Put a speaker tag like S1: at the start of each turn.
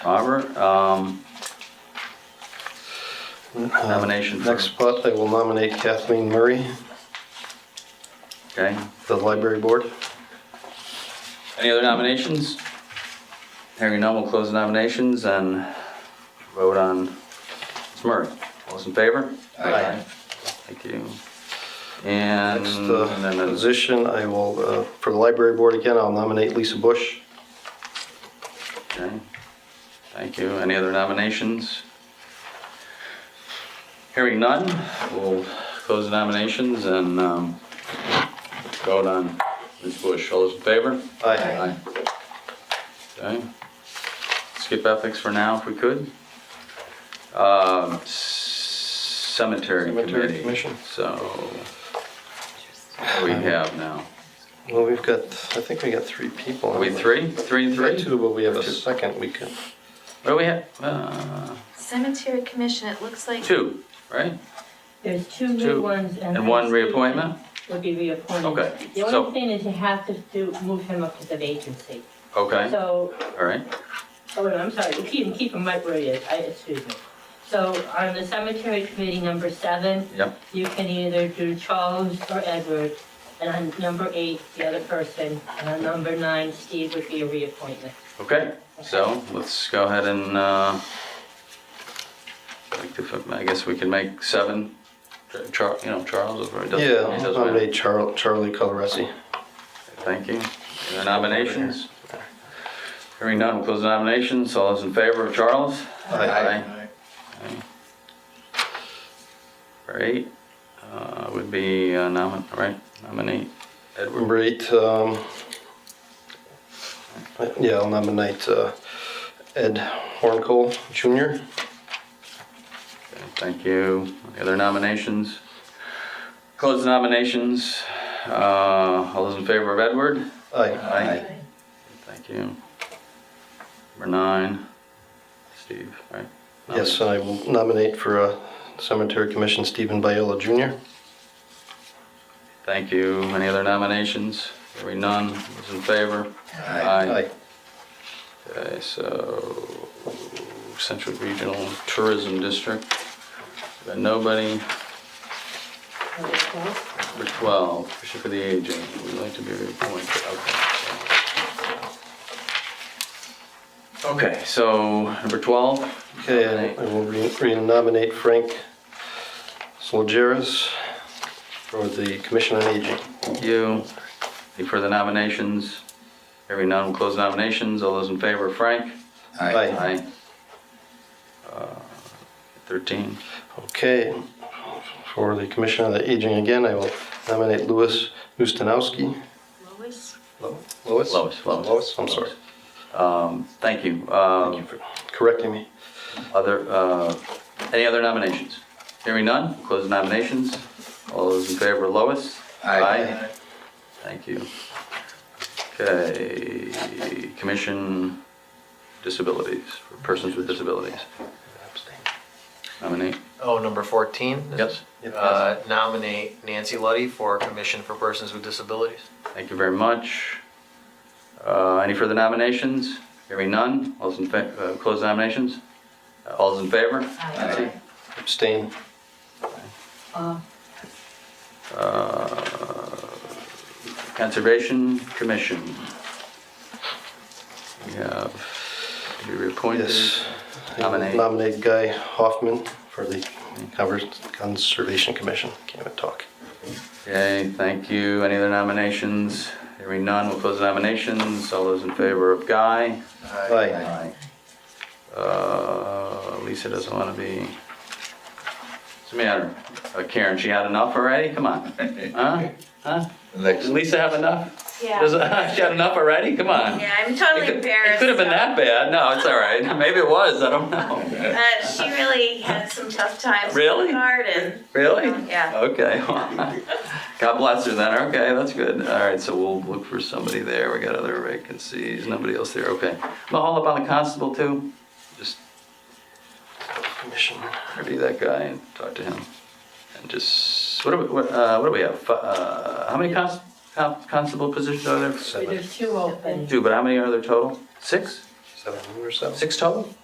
S1: Robert, um, Nomination for-
S2: Uh, Next spot, I will nominate Kathleen Murray
S1: okay.
S2: for the library board.
S1: Any other nominations? Hearing none, we'll close the nominations and vote on Ms. Murray. All those in favor?
S2: Aye.
S1: Thank you. And
S2: Next uh,
S1: then there's-
S2: position, I will, uh, for the library board again, I'll nominate Lisa Bush.
S1: Okay. Thank you. Any other nominations? Hearing none, we'll close the nominations and um, vote on Ms. Bush. All those in favor?
S2: Aye.
S1: Okay. Skip ethics for now if we could. Um, c- Cemetery
S2: Cemetery
S1: committee,
S2: commission.
S1: so what do we have now?
S2: Well, we've got, I think we got three people.
S1: Are we three? Three and
S2: We got
S1: three?
S2: two, but we have a
S1: Two.
S2: second we could.
S1: What do we have? Uh,
S3: Cemetery Commission, it looks like.
S1: Two, right?
S4: There's two
S1: Two.
S4: new ones and.
S1: And one reappointment?
S4: Would be reappointed.
S1: Okay,
S4: The
S1: so-
S4: only thing is you have to do, move him up to the vacancy.
S1: Okay,
S4: So,
S1: all right.
S4: oh, no, I'm sorry, keep, keep him right where he is, I, excuse me. So on the cemetery committee, number seven.
S1: Yep.
S4: You can either do Charles or Edward, and on number eight, the other person, and on number nine, Steve would be a reappointment.
S1: Okay, so let's go ahead and, uh, like to fi- I guess we can make seven, Char, you know, Charles, if it doesn't.
S2: Yeah,
S1: it
S2: I'll
S1: doesn't matter.
S2: nominate Char- Charlie Coloresi.
S1: Thank you. Any other nominations? Hearing none, we'll close the nominations. All those in favor of Charles? Aye. Aye. All right, uh, would be uh, nomin, right, nominate Edward.
S2: Number eight, um, yeah, I'll nominate uh, Ed Horncole Jr.
S1: Okay, Thank you. Any other nominations? Close the nominations. Uh, all those in favor of Edward?
S2: Aye.
S1: Aye. Thank you. Number nine, Steve, right?
S2: Yes, I will nominate for uh, Cemetery Commission Stephen Biella Jr.
S1: Thank you. Any other nominations? Hearing none. Those in favor? Aye. Okay, so Central Regional Tourism District. Got nobody.
S4: Number twelve?
S1: Number 12, Commission for the Aging. We'd like to be reappointed. Okay. Okay, so number 12.
S2: Okay, I I will re- re-nominate Frank Solgeras for the Commission on Aging.
S1: You, any further nominations? Hearing none, we'll close nominations. All those in favor, Frank?
S2: Aye.
S1: Aye. Uh, 13,
S2: Okay, for the Commission on the Aging again, I will nominate Louis Ustinowski.
S3: Lois,
S2: Lois?
S1: Lois, Lois.
S2: Lois, I'm sorry.
S1: Um, Thank you.
S2: Thank
S1: Uh,
S2: you for correcting me.
S1: Other, uh, any other nominations? Hearing none, we'll close the nominations. All those in favor, Lois? Aye. Thank you. Okay, Commission Disabilities, for Persons with Disabilities. Nominate,
S5: Oh, number 14?
S1: Yep.
S2: Yep.
S5: Uh, Nominate Nancy Luddy for Commission for Persons with Disabilities.
S1: thank you very much. Uh, Any further nominations? Hearing none, all those in, fa- uh, close nominations? Uh, All those in favor?
S4: Aye.
S2: Abstain.
S4: Uh,
S1: Uh, Conservation Commission. We have, we reappointed.
S2: Yes. I will
S1: Nominate.
S2: Nominate Guy Hoffman for the Conver- Conservation Commission. Can't even talk.
S1: Okay, thank you. Any other nominations? Hearing none, we'll close the nominations. All those in favor of Guy?
S2: Aye.
S1: Uh, Lisa doesn't want to be. What's the matter? Uh, Karen, she had enough already? Come on. Huh? Huh? Did Lisa have enough?
S6: Yeah.
S1: Does- She had enough already? Come on.
S6: Yeah, I'm
S1: It
S6: totally
S1: could-
S6: embarrassed.
S1: It could have been that bad. No, it's all right. Maybe it was. I don't know.
S6: Uh, she really had some tough times.
S1: Really?
S6: In the garden.
S1: Really?
S6: Yeah.
S1: Okay. God bless her then. Okay, that's good. All right, so we'll look for somebody there. We got other vacancies. Nobody else there. Okay. Mahal up on the constable too. Just
S2: Commission.
S1: interview that guy and talk to him. And just what do we what, uh, what do we have? Fi- Uh, how many const- con- constable positions are there?
S2: Seven.
S4: There's two open.
S1: Two, but how many are there total? Six.
S7: seven or so.
S2: Six total?